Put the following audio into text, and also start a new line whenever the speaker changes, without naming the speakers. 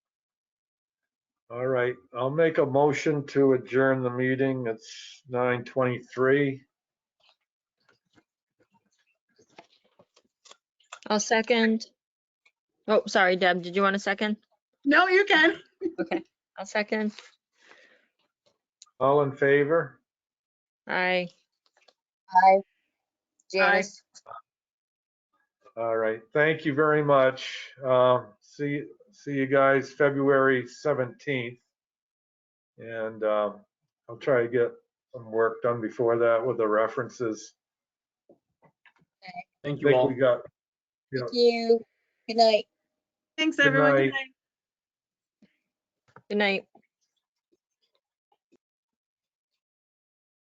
All right, I'll make a motion to adjourn the meeting. It's nine twenty-three.
I'll second. Oh, sorry, Deb, did you want a second?
No, you can.
I'll second.
All in favor?
Aye.
Hi, Janice.
All right, thank you very much. Um, See, see you guys February 17th. And um, I'll try to get some work done before that with the references.
Thank
I
you
think
all.
we got, you know,
Thank you. Good night.
Thanks,
Good
everyone. Good
night.
night.
Good night.